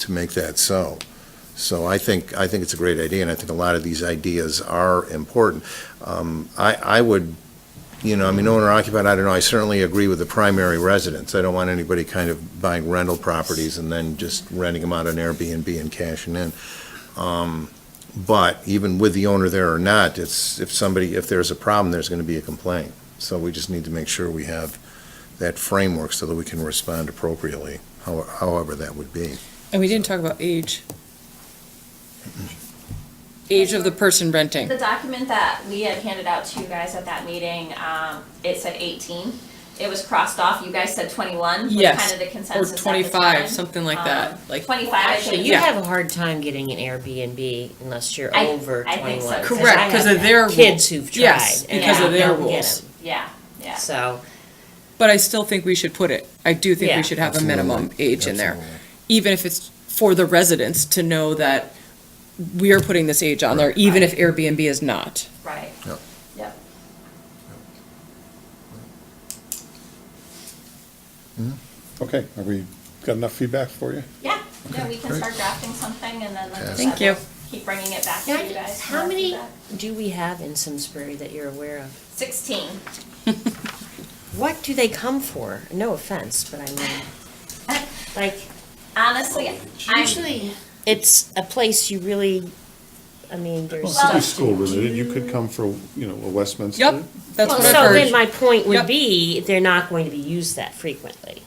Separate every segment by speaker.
Speaker 1: to make that so. So I think, I think it's a great idea, and I think a lot of these ideas are important. Um, I, I would, you know, I mean, owner occupied, I don't know, I certainly agree with the primary residence. I don't want anybody kind of buying rental properties and then just renting them out on Airbnb and cashing in. Um, But even with the owner there or not, it's, if somebody, if there's a problem, there's going to be a complaint. So we just need to make sure we have that framework so that we can respond appropriately, how- however that would be.
Speaker 2: And we didn't talk about age. Age of the person renting.
Speaker 3: The document that we had handed out to you guys at that meeting, um, it said eighteen. It was crossed off, you guys said twenty-one, was
Speaker 2: Yes.
Speaker 3: kind of the
Speaker 2: Or
Speaker 3: consensus at the time. Um,
Speaker 2: twenty-five, something like that, like,
Speaker 3: Twenty-five, I
Speaker 4: Actually,
Speaker 3: think.
Speaker 4: you
Speaker 2: Yeah.
Speaker 4: have a hard time getting an Airbnb unless you're
Speaker 3: I-
Speaker 4: over
Speaker 3: I think so,
Speaker 4: twenty-one.
Speaker 3: because
Speaker 2: Correct,
Speaker 4: I
Speaker 2: 'cause
Speaker 4: have
Speaker 2: of their
Speaker 4: Kids
Speaker 2: rule.
Speaker 4: who've tried
Speaker 2: Yes,
Speaker 4: and
Speaker 3: because of
Speaker 4: they
Speaker 2: their
Speaker 4: don't get
Speaker 2: rules.
Speaker 4: 'em.
Speaker 3: yeah, yeah.
Speaker 4: So,
Speaker 2: but I still think we should put it. I do think
Speaker 4: Yeah.
Speaker 2: we should have a minimum
Speaker 1: Absolutely.
Speaker 2: age in there.
Speaker 1: Absolutely.
Speaker 2: Even if it's for the residents to know that we are putting this age on there, even if Airbnb is not.
Speaker 3: Right,
Speaker 1: Yep.
Speaker 3: yep.
Speaker 5: Okay, have we got enough feedback for you?
Speaker 3: Yeah, yeah, we can
Speaker 1: great.
Speaker 3: start drafting something and then let's
Speaker 2: Thank
Speaker 3: just
Speaker 2: you.
Speaker 3: have- keep bringing it back to
Speaker 4: Now,
Speaker 3: you guys. for
Speaker 4: how
Speaker 3: more
Speaker 4: many
Speaker 3: feedback.
Speaker 4: do we have in Simsbury that you're aware of?
Speaker 3: Sixteen.
Speaker 4: What do they come for? No offense, but I mean, like,
Speaker 3: Honestly, I'm,
Speaker 4: usually it's a place you really, I mean,
Speaker 5: Well,
Speaker 4: there's.
Speaker 5: it could be school related, you could come for, you know, a Westminster.
Speaker 2: Yep, that's
Speaker 4: Well,
Speaker 2: what
Speaker 4: so
Speaker 2: I've
Speaker 4: then
Speaker 2: heard.
Speaker 4: my
Speaker 2: Yep.
Speaker 4: point would be, they're not going to be used that frequently.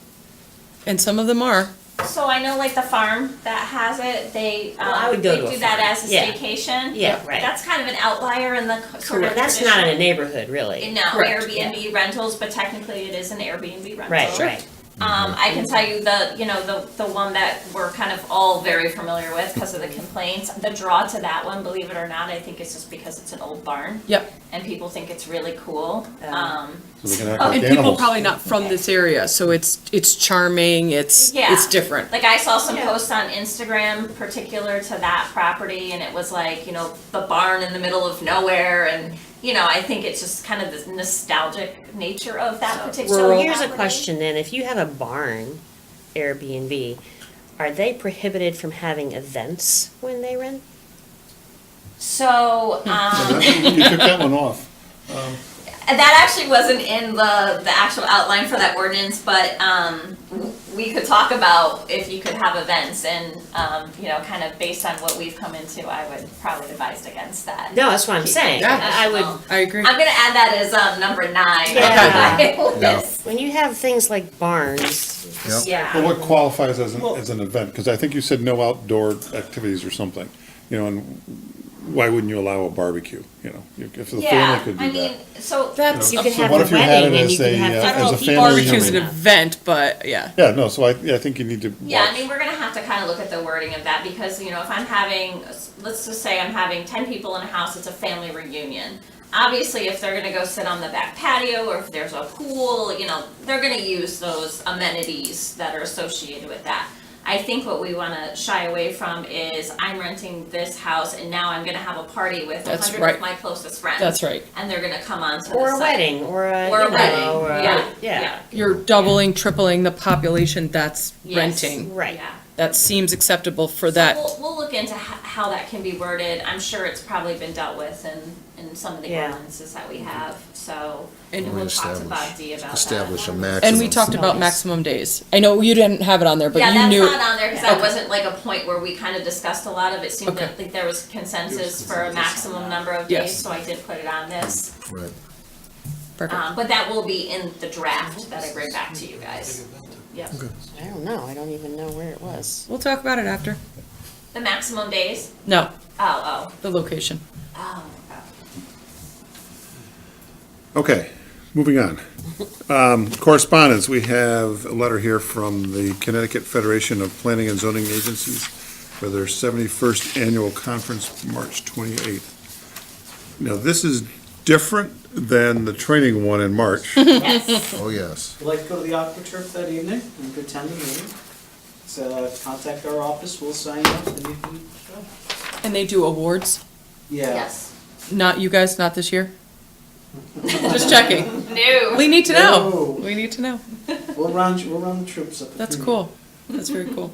Speaker 2: And some of them are.
Speaker 3: so I know like the farm that has it, they,
Speaker 4: Well, I
Speaker 3: um,
Speaker 4: would go
Speaker 3: they
Speaker 4: to a
Speaker 3: do that
Speaker 4: farm.
Speaker 3: as a
Speaker 4: Yeah.
Speaker 3: staycation.
Speaker 4: Yeah, right.
Speaker 3: That's kind of an outlier in the co- sort of
Speaker 4: That's not in a
Speaker 3: traditional-
Speaker 4: neighborhood, really.
Speaker 3: No,
Speaker 2: Correct.
Speaker 3: Airbnb rentals, but technically it is an Airbnb rental.
Speaker 4: Right, right. Mm-hmm.
Speaker 3: Um, I can tell you the, you know, the, the one that we're kind of all very familiar with because
Speaker 4: Mm-hmm.
Speaker 3: of the complaints. The draw to that one, believe it or not, I think is just because it's an old barn
Speaker 2: Yep.
Speaker 3: and people think it's really cool.
Speaker 4: Um,
Speaker 3: Um,
Speaker 5: So they're gonna act like
Speaker 2: And people
Speaker 5: animals.
Speaker 2: probably not from this area, so it's, it's charming, it's,
Speaker 3: Yeah.
Speaker 2: it's different.
Speaker 3: Like I saw some posts on Instagram particular to that property and it was like, you know, the barn in the middle of nowhere and, you know, I think it's just kind of the nostalgic nature of that particular
Speaker 4: So here's a
Speaker 3: property.
Speaker 4: question then, if you have a barn Airbnb, are they prohibited from having events when they rent?
Speaker 3: So,
Speaker 4: Hmm.
Speaker 3: um,
Speaker 5: You took that one off.
Speaker 3: And that actually wasn't in the, the actual outline for that ordinance, but, um, w- we could talk about if you could have events and, um, you know, kind of based on what we've come into, I would probably advise against that.
Speaker 4: No, that's what I'm saying.
Speaker 2: Yeah.
Speaker 4: I I
Speaker 3: Um,
Speaker 4: would,
Speaker 2: I agree.
Speaker 3: I'm gonna add that as, um, number nine.
Speaker 4: Yeah.
Speaker 3: on my list.
Speaker 4: when you have things like barns,
Speaker 1: Yep.
Speaker 5: Well,
Speaker 3: Yeah,
Speaker 5: what qualifies as an, as an event? Because I think you said no outdoor activities or something, you know, and why wouldn't you allow a barbecue, you know? If if the family
Speaker 3: yeah,
Speaker 5: could
Speaker 3: I
Speaker 5: do
Speaker 3: mean,
Speaker 5: that.
Speaker 3: so,
Speaker 2: That's,
Speaker 4: you
Speaker 2: I
Speaker 4: could
Speaker 5: So
Speaker 4: have
Speaker 5: what
Speaker 4: a
Speaker 5: if you had
Speaker 4: wedding
Speaker 5: it
Speaker 4: and
Speaker 5: as
Speaker 4: you could
Speaker 5: a,
Speaker 4: have.
Speaker 5: uh,
Speaker 2: don't know
Speaker 5: as a
Speaker 2: if
Speaker 5: family
Speaker 2: barbecue's an
Speaker 5: reunion.
Speaker 2: event, but yeah.
Speaker 5: Yeah, no, so I, I think you need to
Speaker 3: yeah, I
Speaker 5: watch.
Speaker 3: mean, we're gonna have to kind of look at the wording of that because, you know, if I'm having, let's just say I'm having ten people in a house, it's a family reunion. Obviously, if they're gonna go sit on the back patio or if there's a pool, you know, they're gonna use those amenities that are associated with that. I think what we wanna shy away from is I'm renting this house and now I'm gonna have a party with a
Speaker 2: That's
Speaker 3: hundred
Speaker 2: right.
Speaker 3: of my closest friends.
Speaker 2: That's right.
Speaker 3: And they're gonna come onto the
Speaker 4: Or a
Speaker 3: site.
Speaker 4: wedding, or a,
Speaker 3: Or a
Speaker 4: you
Speaker 3: wedding,
Speaker 4: know, or a-
Speaker 3: yeah, yeah.
Speaker 4: yeah.
Speaker 2: You're doubling, tripling the population that's
Speaker 3: Yes.
Speaker 2: renting.
Speaker 4: Right.
Speaker 3: Yeah.
Speaker 2: That seems acceptable for
Speaker 3: So
Speaker 2: that.
Speaker 3: We'll, we'll look into ho- how that can be worded. I'm sure it's probably been dealt with in, in some of the
Speaker 4: Yeah.
Speaker 3: ordinances that we have, so.
Speaker 2: And-
Speaker 3: we'll talk to
Speaker 1: Establish-
Speaker 3: Bob D about that.
Speaker 1: Establish a maximum.
Speaker 2: And we talked about maximum days. I know you didn't have it on there, but
Speaker 3: Yeah,
Speaker 2: you
Speaker 3: that's
Speaker 2: knew.
Speaker 3: not on there, cause that wasn't like a point where we kinda discussed a lot of it. Seemed
Speaker 2: Okay.
Speaker 3: that, like there was consensus for a maximum number of
Speaker 2: Yes.
Speaker 3: days, so I did put it on this.
Speaker 1: Right.
Speaker 2: Perfect.
Speaker 3: Um, but that will be in the draft that I bring back to you guys. Yep.
Speaker 4: I don't know, I don't even know where it was.
Speaker 2: We'll talk about it after.
Speaker 3: The maximum days?
Speaker 2: No,
Speaker 3: Oh, oh,
Speaker 2: the location.
Speaker 3: oh, oh.
Speaker 5: Okay, moving on. Um, Correspondence, we have a letter here from the Connecticut Federation of Planning and Zoning Agencies for their 71st Annual Conference, March 28th. Now, this is different than the training one in March.
Speaker 3: Yes,
Speaker 1: Oh, yes.
Speaker 6: I'd like to go to the AquaTurf that evening and go attend the meeting. So uh, contact our office, we'll sign up and you can go.
Speaker 2: And they do awards?
Speaker 6: Yeah.
Speaker 3: yes.
Speaker 2: Not you guys, not this year? Just checking.
Speaker 3: No.
Speaker 2: We need to know.
Speaker 6: No.
Speaker 2: We need to know.
Speaker 6: We'll round, we'll round the troops up. at
Speaker 2: That's
Speaker 6: the
Speaker 2: cool. That's very cool.